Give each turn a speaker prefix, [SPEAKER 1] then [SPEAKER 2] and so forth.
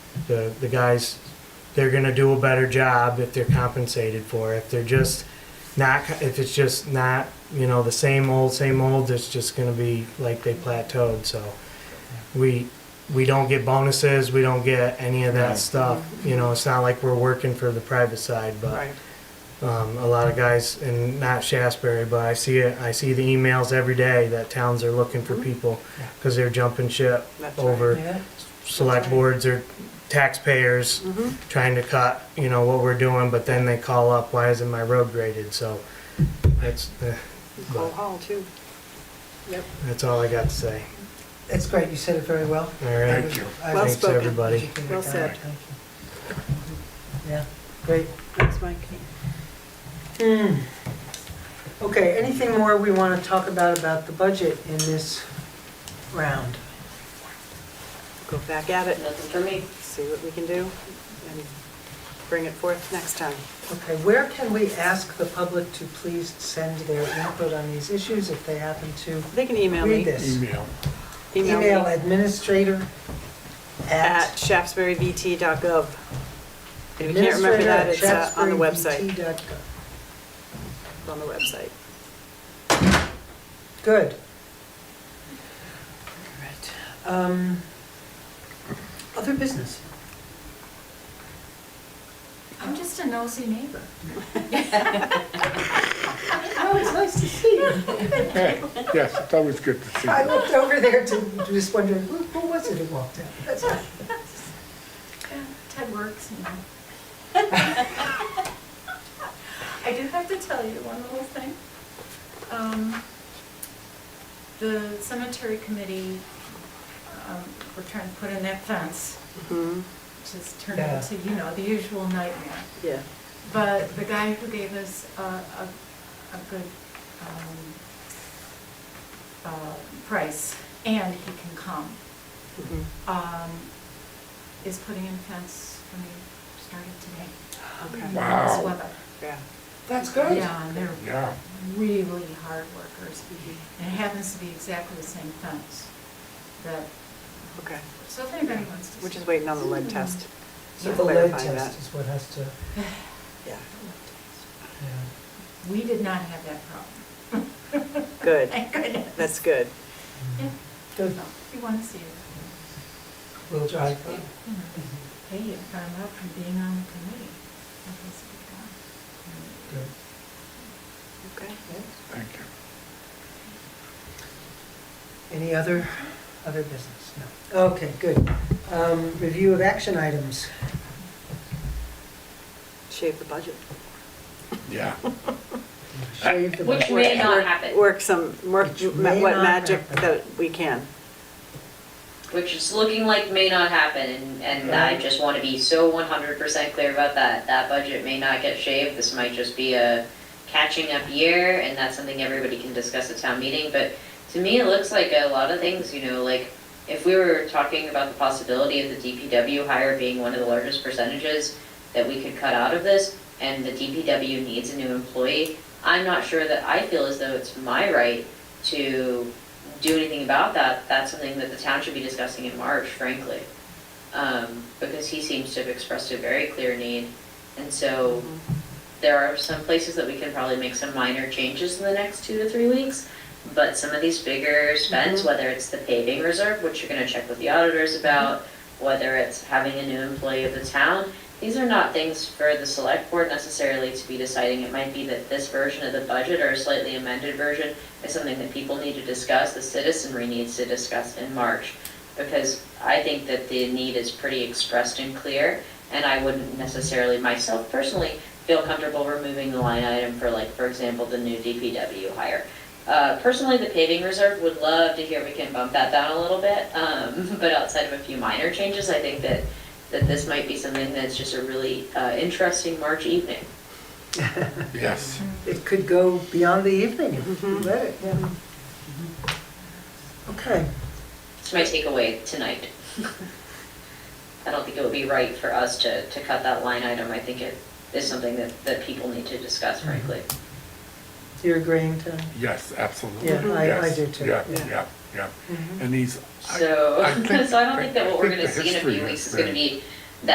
[SPEAKER 1] The, the guys, they're gonna do a better job if they're compensated for it. If they're just not, if it's just not, you know, the same old, same old, it's just gonna be like they plateaued, so. We, we don't get bonuses, we don't get any of
[SPEAKER 2] Right.
[SPEAKER 1] that stuff, you know, it's not like we're working for the private side, but
[SPEAKER 3] Right.
[SPEAKER 1] um, a lot of guys, and not Shasberry, but I see it. I see the emails every day that towns are looking for people
[SPEAKER 2] Yeah.
[SPEAKER 1] because they're jumping ship
[SPEAKER 3] That's right.
[SPEAKER 1] over
[SPEAKER 2] Yeah.
[SPEAKER 1] select
[SPEAKER 3] right.
[SPEAKER 1] boards or taxpayers
[SPEAKER 3] Mhm.
[SPEAKER 1] trying to cut, you know, what we're doing, but then they call up, why isn't my road graded? So that's, the-
[SPEAKER 3] Cole Hall too. Yep.
[SPEAKER 1] that's all I got to say.
[SPEAKER 2] That's great, you said it very well.
[SPEAKER 1] All right.
[SPEAKER 2] Thank you. I
[SPEAKER 3] Well
[SPEAKER 2] think
[SPEAKER 1] Thanks,
[SPEAKER 3] spoken.
[SPEAKER 1] everybody.
[SPEAKER 2] you did a
[SPEAKER 3] Well
[SPEAKER 2] good job.
[SPEAKER 3] said.
[SPEAKER 2] Thank you. Yeah, great.
[SPEAKER 3] Thanks, Mike.
[SPEAKER 2] Hmm. Okay, anything more we want to talk about, about the budget in this round?
[SPEAKER 3] Go back at it,
[SPEAKER 4] Nothing for me.
[SPEAKER 3] see what we can do, and bring it forth next time.
[SPEAKER 2] Okay, where can we ask the public to please send their input on these issues if they happen to
[SPEAKER 3] They can email
[SPEAKER 2] read
[SPEAKER 3] me.
[SPEAKER 2] this?
[SPEAKER 5] Email.
[SPEAKER 2] Email
[SPEAKER 3] me
[SPEAKER 2] administrator
[SPEAKER 3] At
[SPEAKER 2] at.
[SPEAKER 3] shaftesburyvt.gov. And if you can't remember that, it's uh, on the website,
[SPEAKER 2] administrator@shaftesburyvt.gov.
[SPEAKER 3] It's on the website.
[SPEAKER 2] Good. All right. Um, Other business?
[SPEAKER 6] I'm just a nosy neighbor.
[SPEAKER 2] Oh, it's nice to see you.
[SPEAKER 5] Hey, yes, it's always good to see
[SPEAKER 2] I
[SPEAKER 5] you.
[SPEAKER 2] looked over there to, just wondering, who, who was it who walked out? That's all.
[SPEAKER 6] Ted works, you know. I do have to tell you one little thing. Um, The cemetery committee, um, we're trying to put in that fence,
[SPEAKER 3] Mhm.
[SPEAKER 6] which has turned
[SPEAKER 2] Yeah.
[SPEAKER 6] into, you know, the usual nightmare.
[SPEAKER 3] Yeah.
[SPEAKER 6] But the guy who gave us a, a, a good, um, uh, price, and he can come,
[SPEAKER 3] Mhm.
[SPEAKER 6] um, is putting in fence for me, started today.
[SPEAKER 3] Okay.
[SPEAKER 5] Wow.
[SPEAKER 6] This weather.
[SPEAKER 3] Yeah.
[SPEAKER 2] That's great.
[SPEAKER 6] Yeah, and they're
[SPEAKER 5] Yeah,
[SPEAKER 6] really hard workers,
[SPEAKER 3] Mm-hmm.
[SPEAKER 6] and it happens to be exactly the same fence that,
[SPEAKER 3] Okay.
[SPEAKER 6] so if anybody wants to.
[SPEAKER 3] We're just waiting on the lead test.
[SPEAKER 2] So
[SPEAKER 3] to
[SPEAKER 2] the lead
[SPEAKER 3] clarify that.
[SPEAKER 2] test is what has to,
[SPEAKER 3] Yeah.
[SPEAKER 2] yeah.
[SPEAKER 6] We did not have that problem.
[SPEAKER 3] Good.
[SPEAKER 6] Thank goodness.
[SPEAKER 3] That's good.
[SPEAKER 6] Yeah,
[SPEAKER 2] Good,
[SPEAKER 6] so if you want to see it.
[SPEAKER 2] we'll drive. by.
[SPEAKER 6] Hey, you found out from being on the committee. That was good job.
[SPEAKER 2] Good.
[SPEAKER 3] Okay.
[SPEAKER 5] thank you.
[SPEAKER 2] Any other, other business? No. Okay, good. Um, Review of action items.
[SPEAKER 3] Shave the budget.
[SPEAKER 5] Yeah.
[SPEAKER 2] Shave the
[SPEAKER 4] Uh, Which
[SPEAKER 2] budget.
[SPEAKER 4] may not
[SPEAKER 3] Work-
[SPEAKER 4] happen,
[SPEAKER 3] Work some, work
[SPEAKER 2] Which may
[SPEAKER 3] ma- what
[SPEAKER 2] not
[SPEAKER 3] magic
[SPEAKER 2] happen.
[SPEAKER 3] that we can.
[SPEAKER 4] which is looking like may not happen, and, and I just wanna be so one hundred percent clear about that. That budget may not get shaved, this might just be a catching up year, and that's something everybody can discuss at town meeting, but to me, it looks like a lot of things, you know, like, if we were talking about the possibility of the DPW hire being one of the largest percentages that we could cut out of this, and the DPW needs a new employee, I'm not sure that I feel as though it's my right to do anything about that. That's something that the town should be discussing in March, frankly. Um, because he seems to have expressed a very clear need. And so there are some places that we can probably make some minor changes in the next two to three weeks. But some of these bigger spends, whether it's the paving reserve, which you're gonna check with the auditors about, whether it's having a new employee of the town, these are not things for the select board necessarily to be deciding. It might be that this version of the budget or a slightly amended version is something that people need to discuss, the citizenry needs to discuss in March. Because I think that the need is pretty expressed and clear, and I wouldn't necessarily myself personally feel comfortable removing the line item for like, for example, the new DPW hire. Uh, personally, the paving reserve would love to hear we can bump that down a little bit, um, but outside of a few minor changes, I think that, that this might be something that's just a really, uh, interesting March evening.
[SPEAKER 5] Yes.
[SPEAKER 2] It could go beyond the evening if you let it, yeah. Okay.
[SPEAKER 4] It's my takeaway tonight. I don't think it would be right for us to, to cut that line item. I think it is something that, that people need to discuss, frankly.
[SPEAKER 5] Mm-hmm.
[SPEAKER 2] You're agreeing, Tom?
[SPEAKER 5] Yes, absolutely.
[SPEAKER 2] Yeah, I- I
[SPEAKER 5] Yes,
[SPEAKER 2] do too. Mm-hmm.
[SPEAKER 5] Yeah,
[SPEAKER 3] Yeah.
[SPEAKER 5] yeah, yeah. And these, I-
[SPEAKER 4] So,
[SPEAKER 5] I think-
[SPEAKER 4] so I don't think that what we're
[SPEAKER 5] I think
[SPEAKER 4] gonna
[SPEAKER 5] the
[SPEAKER 4] see in a
[SPEAKER 5] history
[SPEAKER 4] few weeks
[SPEAKER 5] is
[SPEAKER 4] is gonna
[SPEAKER 5] that-
[SPEAKER 4] be